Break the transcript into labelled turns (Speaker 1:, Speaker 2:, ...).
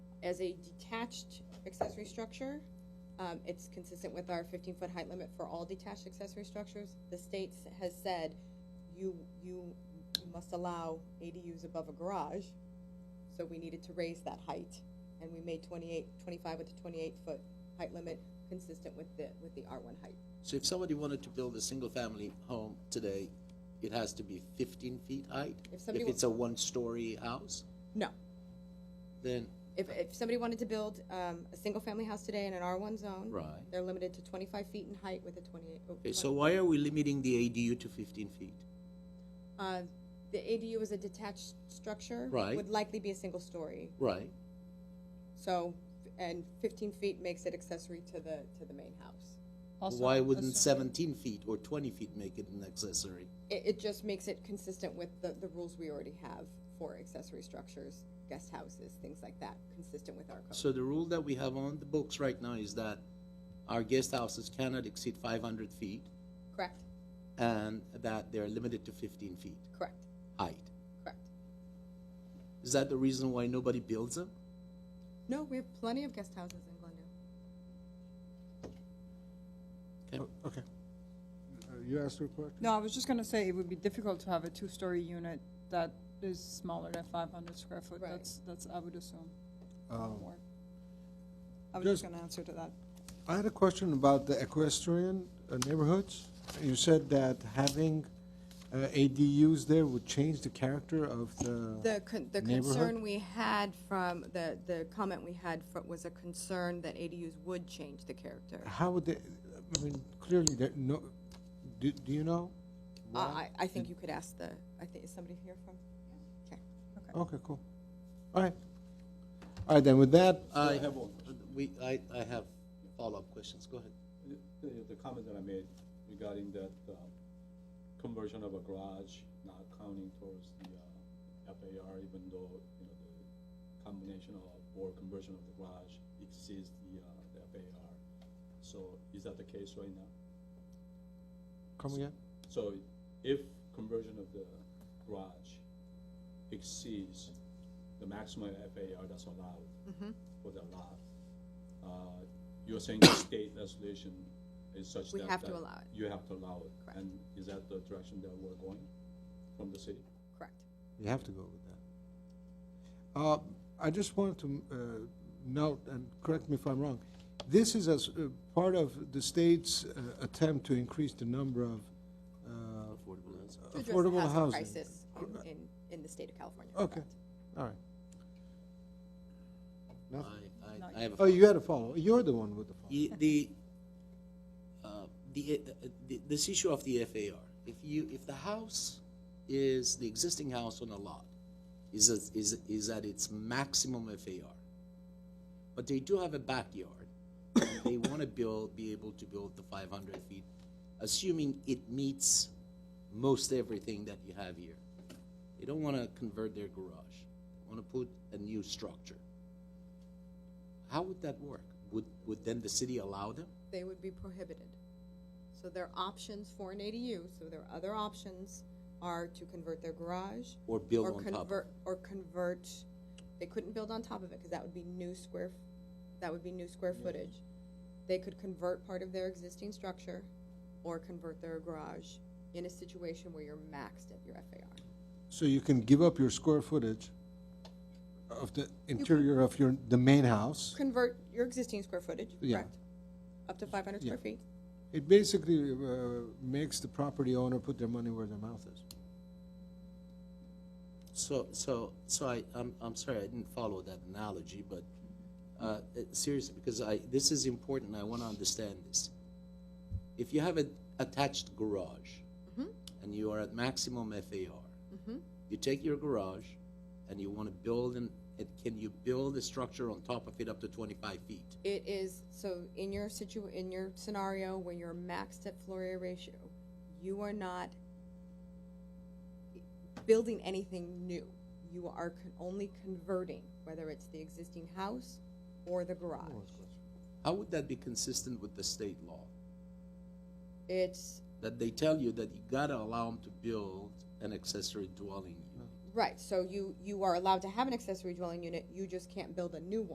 Speaker 1: as a detached accessory structure. Um, it's consistent with our fifteen-foot height limit for all detached accessory structures. The state s- has said you, you must allow ADUs above a garage, so we needed to raise that height. And we made 28, 25 with a twenty-eight-foot height limit, consistent with the, with the R one height.
Speaker 2: So if somebody wanted to build a single-family home today, it has to be fifteen feet height?
Speaker 1: If somebody
Speaker 2: If
Speaker 1: wa-
Speaker 2: it's a one-story house,
Speaker 1: No,
Speaker 2: then,
Speaker 1: if, if somebody wanted to build, um, a single-family house today in an R one zone.
Speaker 2: Right.
Speaker 1: They're limited to twenty-five feet in height with a twenty-eight. oh,
Speaker 2: okay, so why are we limiting the ADU to fifteen feet?
Speaker 1: Uh, The ADU is a detached structure.
Speaker 2: Right.
Speaker 1: Would likely be a single story,
Speaker 2: Right,
Speaker 1: so, and fifteen feet makes it accessory to the, to the main house.
Speaker 3: Also,
Speaker 2: why wouldn't
Speaker 3: assuming-
Speaker 2: seventeen feet or twenty feet make it an accessory?
Speaker 1: It, it just makes it consistent with the, the rules we already have for accessory structures, guest houses, things like that, consistent with our code.
Speaker 2: So the rule that we have on the books right now is that our guest houses cannot exceed five hundred feet,
Speaker 1: Correct,
Speaker 2: and that they're limited to fifteen feet
Speaker 1: correct,
Speaker 2: height.
Speaker 1: correct.
Speaker 2: Is that the reason why nobody builds them?
Speaker 1: No, we have plenty of guest houses in Glendale.
Speaker 4: Okay. Uh, You asked a question?
Speaker 3: No, I was just gonna say, it would be difficult to have a two-story unit that is smaller than five hundred square foot,
Speaker 1: Right.
Speaker 3: that's, that's, I would assume.
Speaker 4: Um,
Speaker 3: Or- I was just
Speaker 4: Just-
Speaker 3: gonna answer to that.
Speaker 4: I had a question about the equestrian uh, neighborhoods. You said that having uh, ADUs there would change the character of the,
Speaker 1: The, con- the
Speaker 4: Neighborhood?
Speaker 1: concern we had from, the, the comment we had fro- was a concern that ADUs would change the character.
Speaker 4: how would they, I mean, clearly, there, no, do, do you know?
Speaker 1: Uh,
Speaker 4: why?
Speaker 1: I, I think you could ask the, I think, is somebody here from? Okay.
Speaker 4: Okay, cool. All right. All right, then with that,
Speaker 2: I have one. We, I, I have follow-up questions, go ahead.
Speaker 5: The, the comment that I made regarding that uh, conversion of a garage not counting towards the uh, FAR, even though, you know, the combination of, or conversion of the garage exceeds the, uh, the FAR. So is that the case right now?
Speaker 4: come again?
Speaker 5: So if conversion of the garage exceeds the maximum FAR that's allowed
Speaker 1: Mm-hmm.
Speaker 5: for the lot, uh, you're saying the state legislation is such
Speaker 1: We
Speaker 5: that.
Speaker 1: have to
Speaker 5: that
Speaker 1: allow it.
Speaker 5: You have to allow it.
Speaker 1: Correct.
Speaker 5: And is that the direction that we're going from the city?
Speaker 1: Correct.
Speaker 4: You have to go with that. Uh, I just wanted to uh, note, and correct me if I'm wrong, this is as uh, part of the state's uh, attempt to increase the number of uh,
Speaker 1: To
Speaker 2: Affordable housing.
Speaker 1: address the
Speaker 4: affordable housing.
Speaker 1: Crisis in- in, in the state of California.
Speaker 4: Okay,
Speaker 1: correct.
Speaker 4: all right.
Speaker 2: I,
Speaker 4: No?
Speaker 2: I, I have a
Speaker 4: Oh, you had a follow. You're the one with the follow.
Speaker 2: The, the, uh, the, uh, the- this issue of the FAR, if you, if the house is, the existing house on a lot is, at- is, is at its maximum FAR, but they do have a backyard, and they wanna build, be able to build the five hundred feet, assuming it meets most everything that you have here. They don't wanna convert their garage, wanna put a new structure. How would that work? Would, would then the city allow them?
Speaker 1: They would be prohibited. So their options for an ADU, so their other options are to convert their garage.
Speaker 2: Or build
Speaker 1: or
Speaker 2: on top of
Speaker 1: convert-
Speaker 2: it.
Speaker 1: Or convert, they couldn't build on top of it, because that would be new square, f- that would be new square footage. They could convert part of their existing structure or convert their garage in a situation where you're maxed at your FAR.
Speaker 4: So you can give up your square footage of the interior of your, the main house.
Speaker 1: Convert your existing square footage,
Speaker 4: Yeah.
Speaker 1: correct? Up to five hundred square
Speaker 4: Yeah.
Speaker 1: feet?
Speaker 4: It basically uh, makes the property owner put their money where their mouth is.
Speaker 2: So, so, so I, I'm, I'm sorry, I didn't follow that analogy, but, uh, it- seriously, because I, this is important, I wanna understand this. If you have an attached garage,
Speaker 1: Mm-hmm.
Speaker 2: and you are at maximum FAR, you take your garage, and you wanna build an, and can you build a structure on top of it up to twenty-five feet?
Speaker 1: It is, so in your situ, in your scenario where you're maxed at floor area ratio, you are not building anything new. You are con- only converting, whether it's the existing house or the garage.
Speaker 2: How would that be consistent with the state law?
Speaker 1: It's,
Speaker 2: That they tell you that you gotta allow them to build an accessory dwelling unit?
Speaker 1: right, so you, you are allowed to have an accessory dwelling unit, you just can't build a new one.